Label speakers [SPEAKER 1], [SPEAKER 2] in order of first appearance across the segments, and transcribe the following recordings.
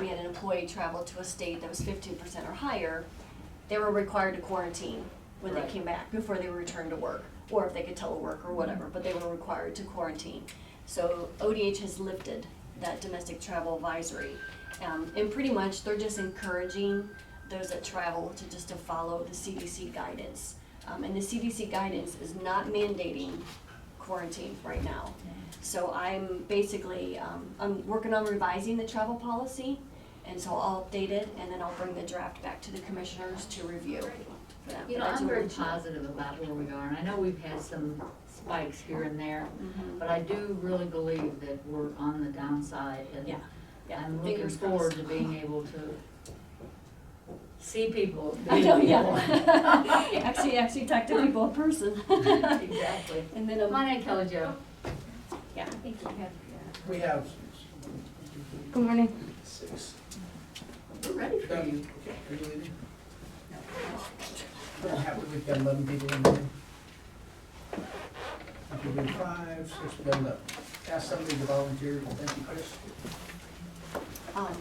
[SPEAKER 1] we had an employee travel to a state that was fifteen percent or higher, they were required to quarantine when they
[SPEAKER 2] Right.
[SPEAKER 1] came back, before they returned to work, or if they could telework or whatever, but they were required to quarantine. So ODH has lifted that domestic travel advisory, um, and pretty much they're just encouraging those that travel to just to follow the CDC guidance. Um, and the CDC guidance is not mandating quarantine right now. So I'm basically, um, I'm working on revising the travel policy, and so I'll update it, and then I'll bring the draft back to the commissioners to review. for that.
[SPEAKER 2] You
[SPEAKER 1] But
[SPEAKER 2] know,
[SPEAKER 1] that's
[SPEAKER 2] I'm
[SPEAKER 1] what
[SPEAKER 2] very
[SPEAKER 1] we're doing.
[SPEAKER 2] positive about where we are, and I know we've had some spikes here and there,
[SPEAKER 1] Mhm.
[SPEAKER 2] but I do really believe that we're on the downside, and
[SPEAKER 1] Yeah, yeah,
[SPEAKER 2] I'm looking
[SPEAKER 1] fingers
[SPEAKER 2] forward
[SPEAKER 1] crossed.
[SPEAKER 2] to being able to see people.
[SPEAKER 1] I know,
[SPEAKER 2] meet
[SPEAKER 1] yeah.
[SPEAKER 2] people.
[SPEAKER 1] Actually, actually talk to people in person.
[SPEAKER 2] Exactly.
[SPEAKER 1] And then, um,
[SPEAKER 2] My name Kelly Jo.
[SPEAKER 1] yeah.
[SPEAKER 3] We have,
[SPEAKER 1] Good morning.
[SPEAKER 3] Six. Oh,
[SPEAKER 2] We're ready for
[SPEAKER 3] Okay,
[SPEAKER 2] you.
[SPEAKER 3] are you leaving? We're happy we've got eleven people in here. Happy we have five, six, we got enough. Ask somebody to volunteer, thank you, Chris.
[SPEAKER 1] Um,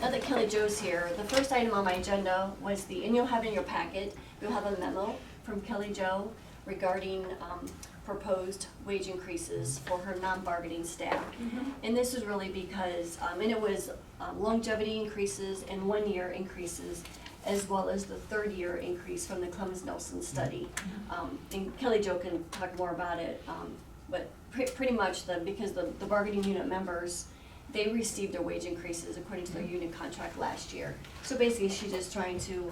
[SPEAKER 1] Now that Kelly Jo's here, the first item on my agenda was the, and you'll have in your packet, you'll have a memo from Kelly Jo regarding um, proposed wage increases for her non-bargaining staff. And this is really because, um, and it was um, longevity increases and one-year increases, as well as the third-year increase from the Clemens Nelson study.
[SPEAKER 4] Mm-hmm.
[SPEAKER 1] Um, And Kelly Jo can talk more about it, um, but pre- pretty much the, because the the bargaining unit members, they received their wage increases according to their
[SPEAKER 4] Mm-hmm.
[SPEAKER 1] union contract last year. So basically, she's just trying to,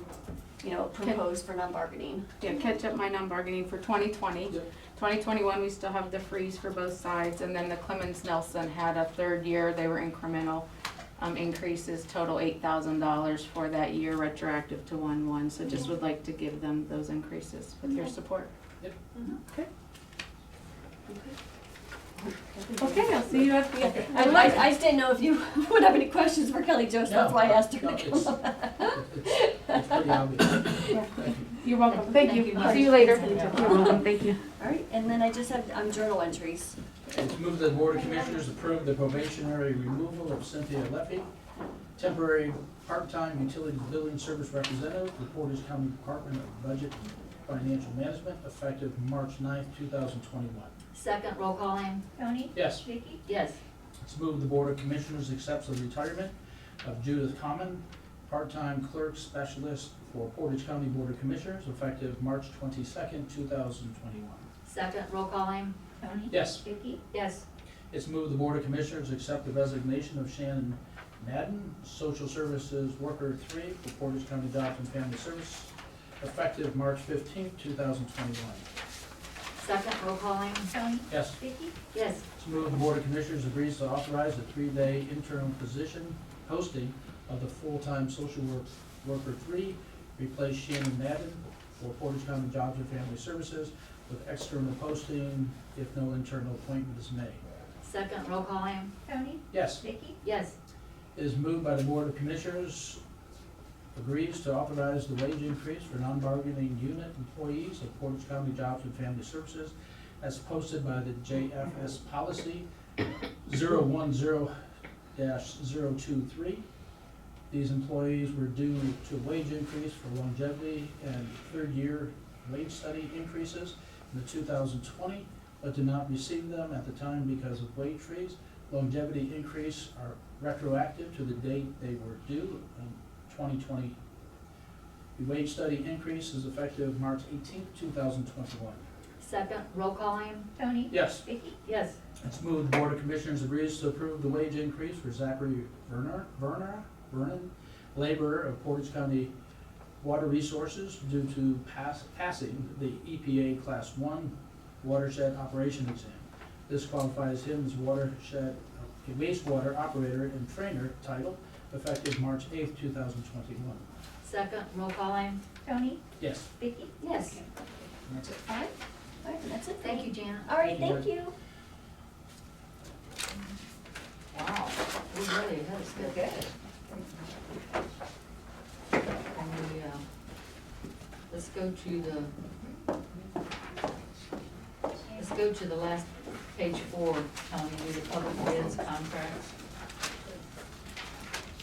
[SPEAKER 1] you know, propose for non-bargaining.
[SPEAKER 4] Yeah, catch up my non-bargaining for 2020.
[SPEAKER 3] Yep.
[SPEAKER 4] 2021, we still have the freeze for both sides, and then the Clemens Nelson had a third year, they were incremental um, increases, total $8,000 for that year retroactive to 1/1, so just would like to give them those increases with your support. Okay, I'll see you at the,
[SPEAKER 1] Yeah, I, I- I just didn't know if you would have any questions for Kelly Jo, so that's why I asked her
[SPEAKER 3] No,
[SPEAKER 1] to
[SPEAKER 3] it's-
[SPEAKER 1] come up.
[SPEAKER 3] It's it's pretty obvious.
[SPEAKER 4] you're welcome, thank you,
[SPEAKER 2] Thank you.
[SPEAKER 4] see you later.
[SPEAKER 1] Thank you.
[SPEAKER 4] You're welcome, thank you.
[SPEAKER 1] All right, and then I just have, um, journal entries.
[SPEAKER 3] It's moved that the Board of Commissioners approve the probationary removal of Cynthia Leffy, temporary part-time utilities billing service representative for Portage County Department of Budget and Financial Management, effective March 9th, two thousand twenty-one.
[SPEAKER 2] Second roll call in.
[SPEAKER 5] Tony,
[SPEAKER 3] Yes,
[SPEAKER 5] Vicky,
[SPEAKER 2] Yes.
[SPEAKER 3] it's moved the Board of Commissioners accepts the retirement of Judith Common, part-time clerk specialist for Portage County Board of Commissioners, effective March twenty-second, two thousand twenty-one.
[SPEAKER 2] Second roll call in.
[SPEAKER 5] Tony,
[SPEAKER 3] Yes,
[SPEAKER 5] Vicky,
[SPEAKER 2] Yes.
[SPEAKER 3] It's moved the Board of Commissioners accept the resignation of Shannon Madden, Social Services Worker Three for Portage County Jobs and Family Service, effective March fifteenth, two thousand twenty-one.
[SPEAKER 2] Second roll call in.
[SPEAKER 5] Tony,
[SPEAKER 3] Yes,
[SPEAKER 5] Vicky,
[SPEAKER 2] Yes.
[SPEAKER 3] it's moved the Board of Commissioners agrees to authorize a three-day interim position posting of the full-time social work, worker three, replace Shannon Madden for Portage County Jobs and Family Services with external posting if no internal appointment is made.
[SPEAKER 2] Second roll call in.
[SPEAKER 5] Tony,
[SPEAKER 3] Yes?
[SPEAKER 5] Vicky,
[SPEAKER 2] Yes.
[SPEAKER 3] It is moved by the Board of Commissioners, agrees to authorize the wage increase for non-bargaining unit employees of Portage County Jobs and Family Services as posted by the JFS Policy 010-023. These employees were due to wage increase for longevity and third-year wage study increases in the 2020, but did not receive them at the time because of wage freeze longevity increase are retroactive to the date they were due in twenty twenty. The wage study increase is effective March eighteenth, two thousand twenty-one.
[SPEAKER 2] Second roll call in.
[SPEAKER 5] Tony,
[SPEAKER 3] Yes,
[SPEAKER 5] Vicky,
[SPEAKER 2] Yes.
[SPEAKER 3] it's moved the Board of Commissioners agrees to approve the wage increase for Zachary Verner, Verner, Vernon, laborer of Portage County Water Resources due to pass, passing the EPA Class One watershed operation exam. This qualifies him as watershed, a wastewater operator and trainer title effective March eighth, two thousand twenty-one.
[SPEAKER 2] Second roll call in.
[SPEAKER 5] Tony,
[SPEAKER 3] Yes,
[SPEAKER 5] Vicky,
[SPEAKER 2] Yes.
[SPEAKER 3] that's it.
[SPEAKER 1] All right, all right, that's it.
[SPEAKER 2] Thank you, Janet.
[SPEAKER 1] All right,
[SPEAKER 3] Thank
[SPEAKER 1] thank
[SPEAKER 3] you.
[SPEAKER 1] you.
[SPEAKER 2] Wow, we really, that was good. And we, uh, Let's go to the, let's go to the last page four, Tony, do the public bids contracts.